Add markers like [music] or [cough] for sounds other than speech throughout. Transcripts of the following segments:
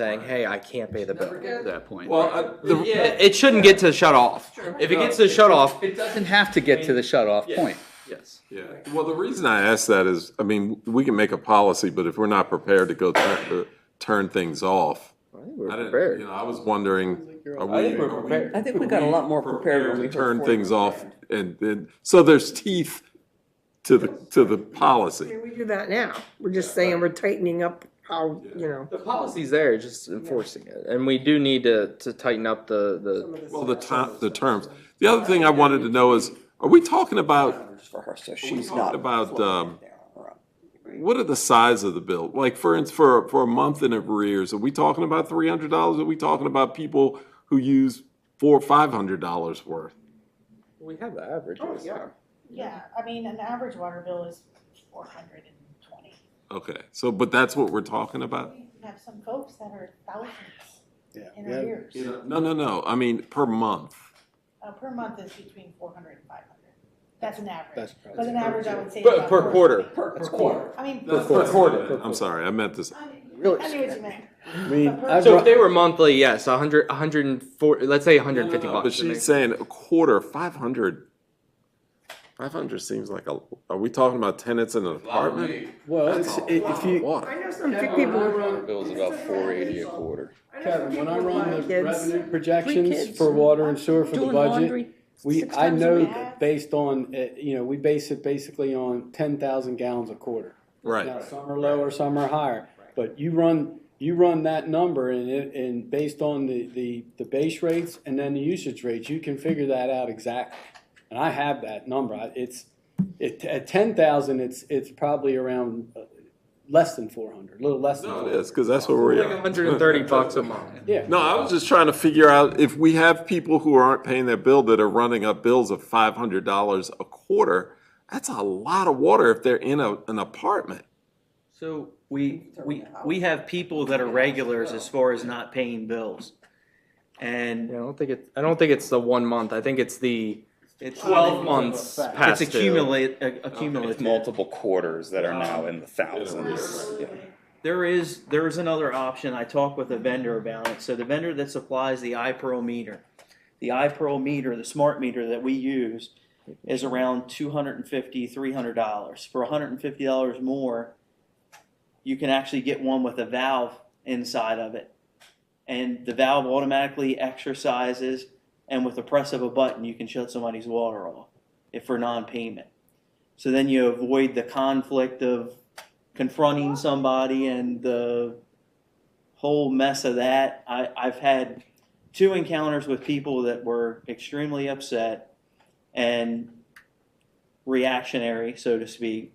saying, hey, I can't pay the bill. At that point. Well, uh, The- yeah, It shouldn't get to shut off. If it gets to shut off, It doesn't have to get to the shut-off point. yes. yeah. Well, the reason I ask that is, I mean, we can make a policy, but if we're not prepared to go turn, uh, turn things off. I think we're I didn't- prepared. You know, I was wondering, are we? I think we're are we prepared. I think we got a lot more prepared when we to were Turn forty. things off and, and, so there's teeth to the, to the policy. We do that now. We're just saying we're tightening up how, you know. The policy's there, just enforcing it. And we do need to, to tighten up the, the, Well, the ti- the terms. The other thing I wanted to know is, are we talking about, For her, so we she's not. talking about, um, there on her own. what are the size of the bill? Like for ins- for for a month in arrears, are we talking about three hundred dollars? Are we talking about people who use four or five hundred dollars worth? we have the averages. Yeah, I mean, an average water bill is four hundred and twenty. Okay, so but that's what we're talking about. We have some folks that are thousands in Yeah. arrears. No, no, no. I mean per month. Uh, per month is between four hundred and five hundred. That's an average. That's But an average, I would say. Per- about per 400. quarter. Per quarter. I mean. That's- quarter. that's what I Per meant. I'm sorry, I meant this. I knew- Really? I knew what you meant. I mean, I So if brought, they were monthly, yes, a hundred, a hundred and four, let's say a hundred and fifty No, no, no, bucks. But she's saying a quarter, five hundred. Five hundred seems like a. Are we talking about tenants in an apartment? well, it's, if you, What? I know some people, Bill's about four eighty a quarter. I know some Kevin, when I people run with the kids. revenue projections kids for and water and sewer for the doing budget, laundry we, six I times a know week. that based on, uh, you know, we base it basically on ten thousand gallons a quarter. Right. Now, some are lower, some are higher, but you run, you run that number and it, and based on the, the, the base rates and then the usage rates, you can figure that out exactly. And I have that number, I- it's, it, at ten thousand, it's, it's probably around uh, less than four hundred, a little less than. No, 400. it is because that's where we Like are. a hundred and thirty bucks a [laughs] month. Yeah. [laughs] No, I was just trying to figure out if we have people who aren't paying their bill that are running up bills of five hundred dollars a quarter. That's a lot of water if they're in a, an apartment. So we, we, we have people that are regulars as far as not paying bills. Yeah, And I don't think it, I don't think it's the one month. I think it's the it's, twelve months past it's due. accumulate, accumulative. Multiple quarters that are now in the thousands. There is, there is another option. I talked with a vendor about it. So the vendor that supplies the iPearl meter, the iPearl meter, the smart meter that we use is around two hundred and fifty, three hundred dollars. For hundred and fifty dollars more, you can actually get one with a valve inside of it. And the valve automatically exercises and with the press of a button, you can shut somebody's water off if for non-payment. So then you avoid the conflict of confronting somebody and the whole mess of that. I, I've had two encounters with people that were extremely upset and reactionary, so to speak.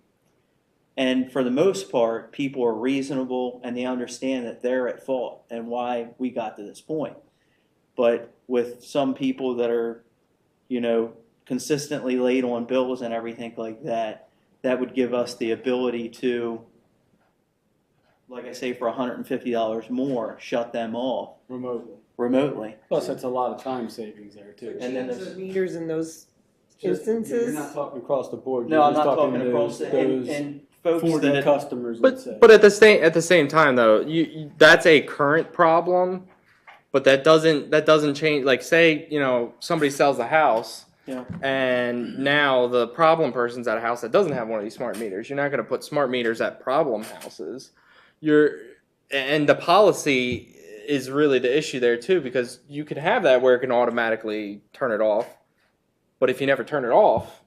And for the most part, people are reasonable and they understand that they're at fault and why we got to this point. But with some people that are, you know, consistently late on bills and everything like that, that would give us the ability to, like I say, for hundred and fifty dollars more, shut them off Remotely. remotely. Plus, that's a lot of time savings there too. And then Change there's- the Meters in those Just- You're instances. not talking across the board. No, you're I'm just not talking to across the, and, those and folks Forty that, customers, let's say. But but at the same at the same time though, you, you- that's a current problem, but that doesn't that doesn't change. Like say you know somebody sells a house, Yeah. and now the problem person's at a house that doesn't have one of these smart meters. You're not going to put smart meters at problem houses. You're and the policy is really the issue there too because you can have that where it can automatically turn it off, but if you never turn it off,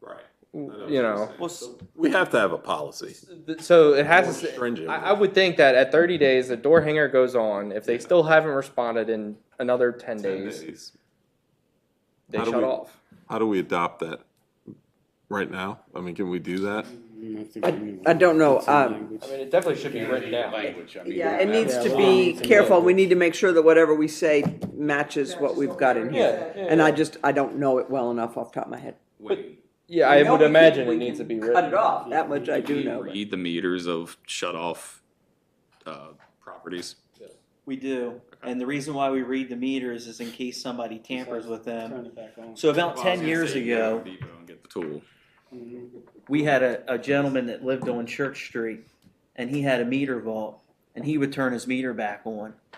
Right. you know. well, s- We have to have a policy. So it has More to. stay- stringent. I, I would think that at 30 days, the door hanger goes on. If they still haven't responded in another 10, 10 days, days. they How do shut we- off. How do we adopt that right now? I mean, can we do that? I don't know, um, I mean, it definitely should be written down. Language, I mean, Yeah, you it have needs to well, be it's a careful. little- We need to make sure that whatever we say matches what we've got in Yeah, here. yeah, And yeah. I just, I don't know it well enough off the top of my head. when- Yeah, I We know would we can- imagine we it needs to can be written. Cut it off, that much I Can do you know. Read the meters of shut off, uh, properties. we do. And the reason why we read the meters is in case somebody tampers with them. Turn it back on. So about Well, I was ten gonna years say, you go to ago, Home Depot and Get the tool. Mm-hmm. we had a, a gentleman that lived on Church Street, and he had a meter vault, and he would turn his meter back on.